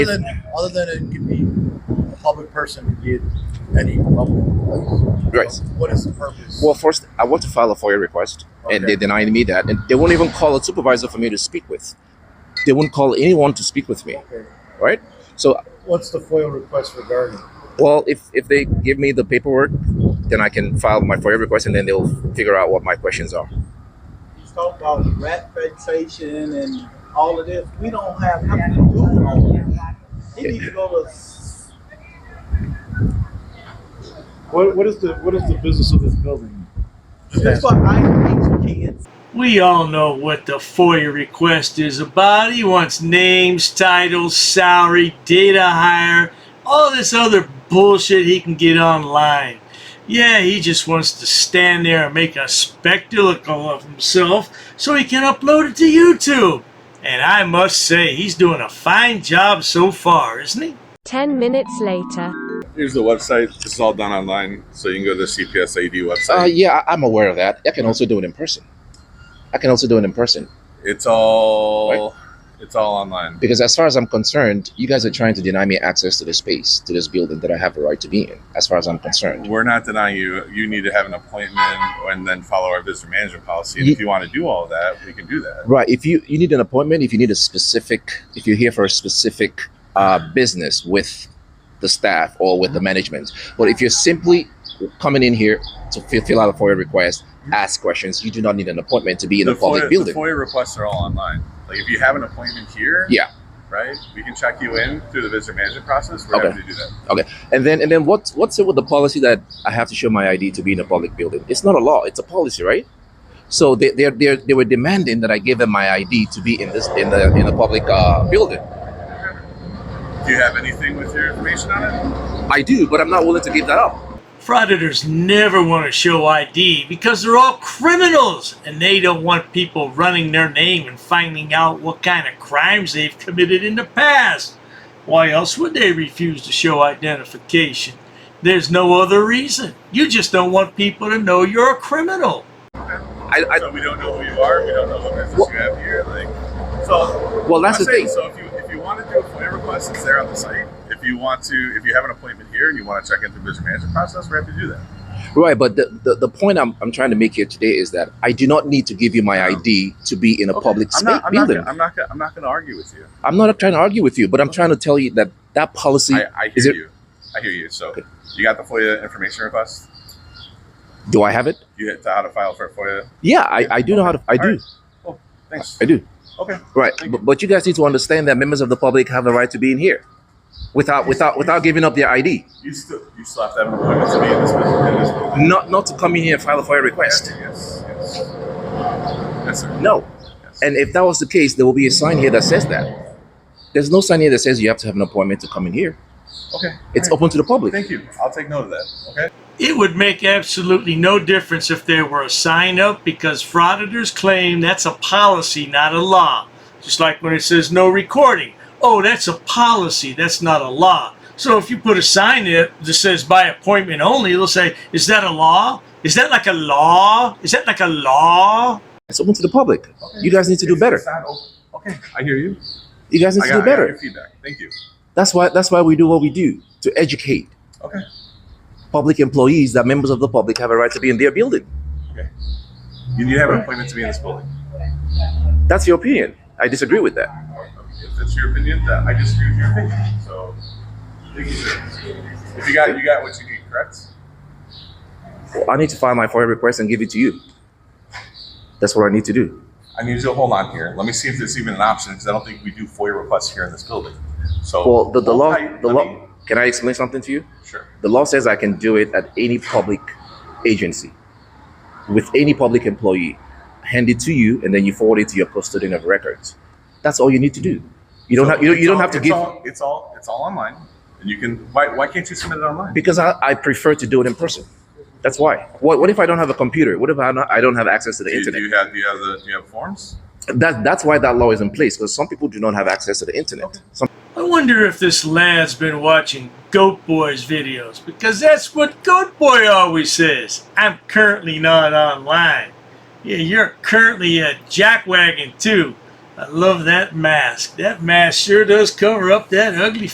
Other than, other than it could be a public person, it could be at any level. Right. What is the purpose? Well, first, I want to file a FOIA request, and Okay. they denied me that. And they won't even call a supervisor for me to speak with. They won't call anyone to speak with me, Okay. right? So, What's the FOIA request regarding? well, if, if they give me the paperwork, then I can file my FOIA request, and then they'll figure out what my questions are. You talk about rat fixation and all of this. We don't have nothing to do with all of that. He needs to go to. s- What, what is the what is the business of this building? That's what I teach kids. We all know what the FOIA request is about. He wants names, titles, salary, data hire, all this other bullshit he can get online. Yeah, he just wants to stand there and make a spectacle of himself so he can upload it to YouTube. And I must say, he's doing a fine job so far, isn't he? 10 minutes later. Here's the website. This is all done online, so you can go to the CPSAD Uh, website. yeah, I, I'm aware of that. I can also do it in person. I can also do it in person it's all it's all online. because, as far as I'm concerned, you guys are trying to deny me access to this space, to this building that I have a right to be in. As far as I'm concerned, We're not denying you. You need to have an appointment and then follow our visitor management policy. And if you want to do all that, we can do that. Right. If you you need an appointment, if you need a specific, if you're here for a specific uh, business with the staff or with the management, but if you're simply coming in here to fill, fill out a FOIA request, ask questions, you do not need an appointment to be in the a public FOIA, building. The FOIA requests are all online. Like if you have an appointment here, Yeah. right, we can check you in through the visitor management process. We're Okay. happy to do that. And then and then what what's it with the policy that I have to show my ID to be in a public building? It's not a law. It's a policy, right? So they they they they were demanding that I give them my ID to be in this in the in a public uh, building. Do you have anything with your information on it? I do, but I'm not willing to give that up. Frauditors never want to show ID because they're all criminals and they don't want people running their name and finding out what kind of crimes they've committed in the past. Why else would they refuse to show identification? There's no other reason. You just don't want people to know you're a criminal. I, I so we don't know who you are. We don't know what business Well- you have here. Like, so well that's I'm the saying, thing. So if you if you want to do a FOIA request, it's there on the site. If you want to, if you have an appointment here and you want to check into the business management process, we're happy to do that. Right, but the, the, the point I'm, I'm trying to make here today is that I do not need to give you my Yeah. ID to be in a Okay, public I'm space not, I'm building. Not, gonna- I'm not. Gonna, I'm not going to argue with you. I'm not trying to argue with you, but I'm trying to tell you that that policy. I, I hear is it- you. I hear you. So Okay. you got the FOIA information request. do I have it? You hit to how to file for FOIA. Yeah, I, I do know how to. I All do. right. Thanks. I do. Okay. Right, Thank you. but, but you guys need to understand that members of the public have the right to be in here, without without without giving up their ID. You still you still have to have an appointment to be in this business. In this building. Not not to come in here and file a FOIA request. Yes. Yes. Yes, sir. No. Yes. And if that was the case, there will be a sign here that says that. There's no sign here that says you have to have an appointment to come in here. okay. It's All right. open to the public. Thank you. I'll take note of that. Okay. It would make absolutely no difference if there were a sign up because frauditors claim that's a policy, not a law. Just like when it says no recording. Oh, that's a policy, that's not a law. So if you put a sign up that says by appointment only, it'll say, is that a law? Is that like a law? Is that like a law? It's open to the public. You guys need to do It's- better. it's not open. Okay. I hear you. You guys need I to got, do I got your better. feedback. Thank you. That's why that's why we do what we do to educate Okay. public employees that members of the public have a right to be in their building. You need to have an appointment to be in this building. That's your opinion. I disagree with that. If that's your opinion, that I disagree with your opinion. So, thank you, sir. If you got, you got what you need, correct? Well, I need to file my FOIA request and give it to you. That's what I need to do. I need you to hold on here. Let me see if there's even an option because I don't think we do FOIA requests here in this building. So, Well, the, the hold law tight. the Let law me- can I explain something to you? Sure. The law says I can do it at any public agency with any public employee. Hand it to you and then you forward it to your custodian of records. That's all you need to do. You don't So have you, it's you don't all- have to it's give all- It's all, it's all online, and you can. Why, why can't you submit it online? because I, I prefer to do it in person. That's why. What, what if I don't have a computer? What if I, not, I don't have access to the Do you, do internet? you have, do you have the, do you have forms? That, that's why that law is in place because some people do not have access to the internet. Some, I wonder if this lad's been watching Goat Boy's videos because that's what Goat Boy always says. I'm currently not online. Yeah, you're currently at Jackwagon too. I love that mask. That mask sure does cover up that ugly